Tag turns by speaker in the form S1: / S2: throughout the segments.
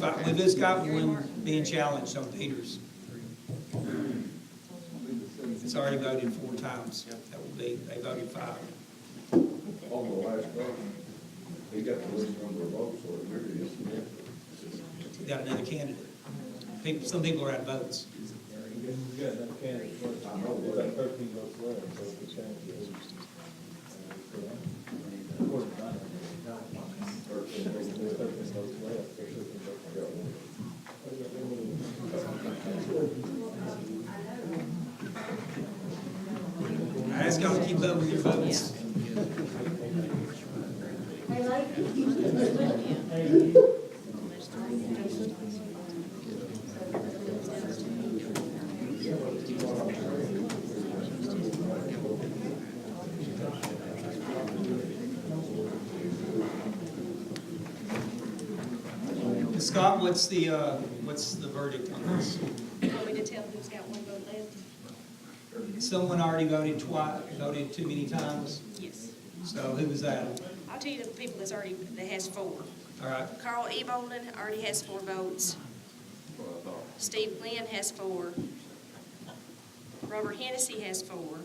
S1: got, we've just got one being challenged on Peters. It's already voted four times. That will be, they voted five.
S2: On the last vote, he got the least number of votes, or there it is.
S1: We got another candidate. People, some people are out of votes.
S3: You got enough candidates, but
S2: I know, but-
S3: that thirteen votes left, so it could change it. Of course, not.
S2: Thirteen votes
S3: There's
S2: left.
S3: thirteen votes left, there's thirteen votes
S2: Got
S3: left.
S2: one.
S1: I just gotta keep up with your votes. Scott, what's the, uh, what's the verdict on this?
S4: Want me to tell who's got one vote left?
S1: Someone already voted twice, voted too many times,
S4: Yes.
S1: so who was that?
S4: I'll tell you the people that's already, that has four.
S1: All right,
S4: Carl E. Bolden already has four votes. Steve Glenn has four. Robert Hennessy has four.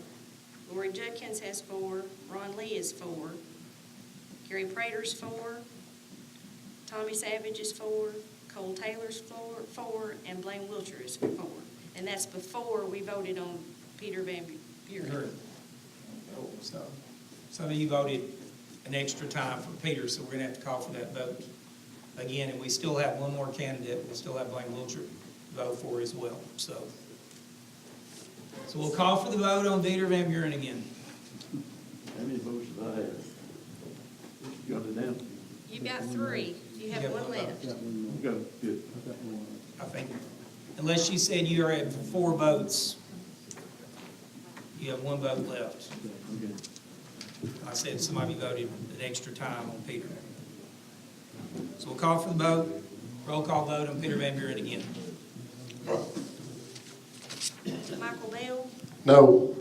S4: Lori Judkins has four. Ron Lee is four. Gary Prater's four. Tommy Savage is four. Cole Taylor's four, four, and Blaine Wiltshire is four. And that's before we voted on Peter Van
S1: you
S4: Buren.
S1: heard. it. So, some of you voted an extra time for Peter, so we're gonna have to call for that vote again, and we still have one more candidate, we still have Blaine Wiltshire to vote for as well, so. So we'll call for the vote on Peter Van Buren again.
S5: How many votes did I have? Got it down?
S4: You've got three, you have
S1: You have
S4: one
S1: one vote.
S4: left.
S5: Got it, good.
S1: I think, unless you said you are at four votes, you have one vote left.
S5: Okay.
S1: I said somebody voted an extra time on Peter. So we'll call for the vote, roll call vote on Peter Van Buren again.
S4: Michael Bell,
S6: No.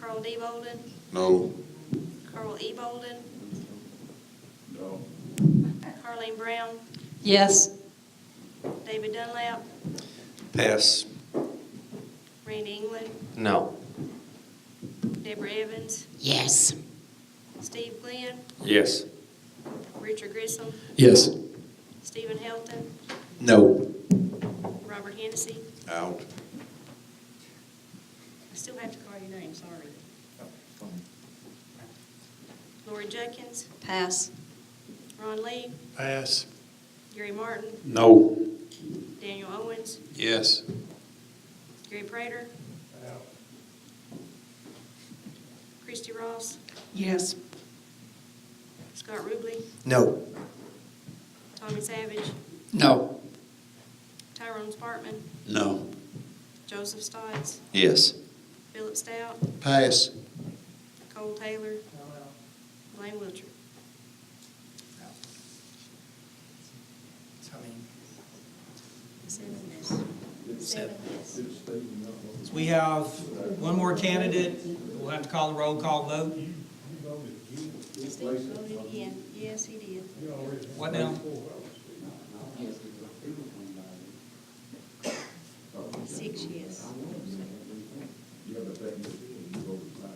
S4: Carl D. Bolden,
S6: No.
S4: Carl E. Bolden,
S2: No.
S4: Carleen Brown,
S7: Yes.
S4: David Dunlap,
S6: Pass.
S4: Randy England,
S6: No.
S4: Deborah Evans,
S7: Yes.
S4: Steve Glenn,
S6: Yes.
S4: Richard Grissom,
S6: Yes.
S4: Stephen Helton,
S6: No.
S4: Robert Hennessy.
S6: Out.
S4: I still have to call your name, sorry. Lori Judkins,
S7: Pass.
S4: Ron Lee,
S6: Pass.
S4: Gary Martin,
S6: No.
S4: Daniel Owens,
S6: Yes.
S4: Gary Prater. Christie Ross,
S7: Yes.
S4: Scott Ruble,
S6: No.
S4: Tommy Savage,
S6: No.
S4: Tyrone Spartman,
S6: No.
S4: Joseph Stotts,
S6: Yes.
S4: Philip Stout,
S6: Pass.
S4: Cole Taylor, Blaine Wiltshire.
S1: So, I mean,
S4: Seven yes. Seven yes.
S1: so we have one more candidate, we'll have to call a roll call vote.
S4: Steve voted in, yes, he did.
S1: What now?
S4: Six yes.
S2: You have a thing, you voted five.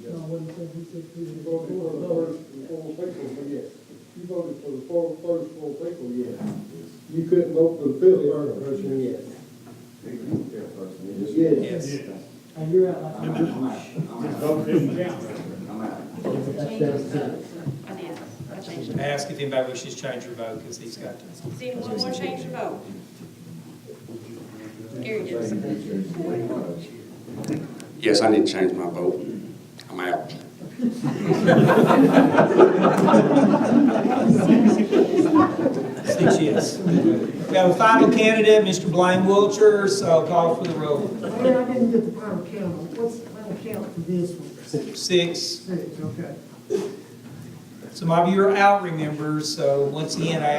S8: You voted for the first four people, yes. You voted for the four, first four people, yes. You couldn't vote for the fifth person, yes. Yes.
S1: Yes.
S8: And you're out.
S4: I did. I changed it.
S1: Ask if anybody wishes to change their vote, because he's got to.
S4: Does anyone want to change their vote? Gary does.
S9: Yes, I need to change my vote. I'm out.
S1: Six yes. We have a final candidate, Mr. Blaine Wiltshire, so call for the roll.
S10: Well, I didn't get the final count. What's the final count for this one?
S1: Six.
S10: Six, okay.
S1: Some of you are out, remember, so once again, I